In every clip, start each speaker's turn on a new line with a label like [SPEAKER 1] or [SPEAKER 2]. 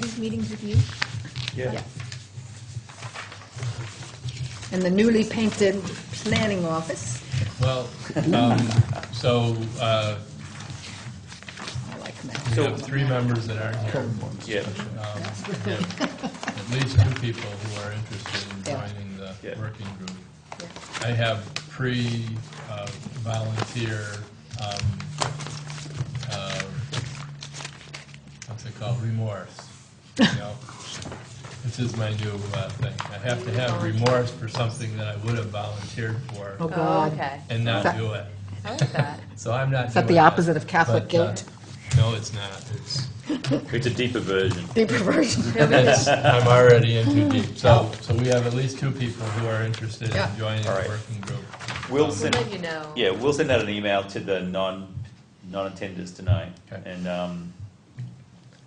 [SPEAKER 1] these meetings with you?
[SPEAKER 2] Yeah.
[SPEAKER 1] Yes. And the newly painted planning office.
[SPEAKER 3] Well, um, so, uh,
[SPEAKER 1] I like
[SPEAKER 3] we
[SPEAKER 1] that.
[SPEAKER 3] have three members that aren't here.
[SPEAKER 2] Yeah.
[SPEAKER 3] Um, we have At least two people who are interested in
[SPEAKER 1] Yeah.
[SPEAKER 3] joining the
[SPEAKER 2] Yeah.
[SPEAKER 3] working group.
[SPEAKER 1] Yeah.
[SPEAKER 3] I have pre-volunteer, um, uh, what's it called, remorse, you know? This is my new uh, thing. I have to have remorse for something that I would have volunteered
[SPEAKER 1] Oh,
[SPEAKER 3] for
[SPEAKER 1] God.
[SPEAKER 4] okay.
[SPEAKER 3] and not do it.
[SPEAKER 4] I like that.
[SPEAKER 3] So I'm not.
[SPEAKER 1] Is that the
[SPEAKER 3] doing
[SPEAKER 1] opposite of Catholic
[SPEAKER 3] But, uh,
[SPEAKER 1] guilt?
[SPEAKER 3] No, it's not. It's,
[SPEAKER 2] It's a deeper version.
[SPEAKER 1] Deep perversion.
[SPEAKER 3] it's- I'm already in too deep. So, so we have at least two people who are interested
[SPEAKER 1] Yeah.
[SPEAKER 3] in joining
[SPEAKER 2] All
[SPEAKER 3] the
[SPEAKER 2] right.
[SPEAKER 3] working group.
[SPEAKER 2] We'll
[SPEAKER 4] We'll
[SPEAKER 2] send,
[SPEAKER 4] let you know.
[SPEAKER 2] yeah, we'll send out an email to the non, non-attenders tonight
[SPEAKER 3] Okay.
[SPEAKER 2] and, um,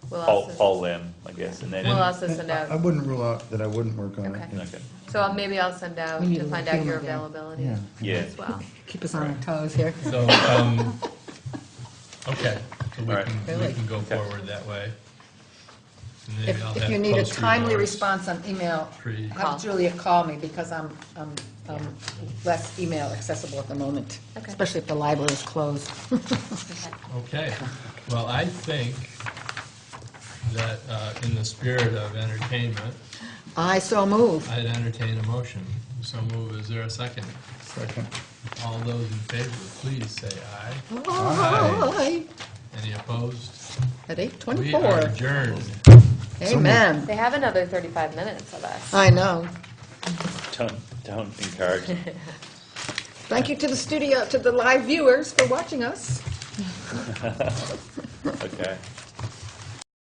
[SPEAKER 4] We'll
[SPEAKER 2] poll,
[SPEAKER 4] also-
[SPEAKER 2] poll them, I guess, and then,
[SPEAKER 4] We'll also send
[SPEAKER 5] I I
[SPEAKER 4] out,
[SPEAKER 5] wouldn't rule out that I wouldn't work on it.
[SPEAKER 4] Okay.
[SPEAKER 5] yeah.
[SPEAKER 2] okay.
[SPEAKER 4] so I'll- maybe I'll send out
[SPEAKER 1] We need
[SPEAKER 4] to
[SPEAKER 1] to
[SPEAKER 4] find
[SPEAKER 1] look
[SPEAKER 4] out your
[SPEAKER 1] him again.
[SPEAKER 4] availability
[SPEAKER 5] Yeah.
[SPEAKER 2] Yeah.
[SPEAKER 4] as well.
[SPEAKER 1] Keep us on our toes here.
[SPEAKER 3] So, um, okay, so we
[SPEAKER 2] All right.
[SPEAKER 3] can, we
[SPEAKER 1] Really?
[SPEAKER 3] can go
[SPEAKER 2] Okay.
[SPEAKER 3] forward that way. And maybe I'll
[SPEAKER 1] If, if
[SPEAKER 3] have
[SPEAKER 1] you need a
[SPEAKER 3] close
[SPEAKER 1] timely
[SPEAKER 3] remorse.
[SPEAKER 1] response on email,
[SPEAKER 3] Pre-
[SPEAKER 4] Call.
[SPEAKER 1] have Julia call me because I'm, I'm, I'm less email accessible at the moment.
[SPEAKER 4] Okay.
[SPEAKER 1] Especially if the library is closed.
[SPEAKER 4] Okay.
[SPEAKER 3] Okay, well, I think that, uh, in the spirit of entertainment,
[SPEAKER 1] I so move.
[SPEAKER 3] I'd entertain a motion. So move, is there a second?
[SPEAKER 5] Second.
[SPEAKER 3] All those in favor, please say aye.
[SPEAKER 1] Aye.
[SPEAKER 3] Any opposed?
[SPEAKER 1] At
[SPEAKER 3] We are
[SPEAKER 1] 8:24.
[SPEAKER 3] adjourned.
[SPEAKER 1] Amen.
[SPEAKER 4] They have another 35 minutes of us.
[SPEAKER 1] I know.
[SPEAKER 2] Don't, don't encourage them.
[SPEAKER 1] Thank you to the studio, to the live viewers for watching us.
[SPEAKER 2] Okay.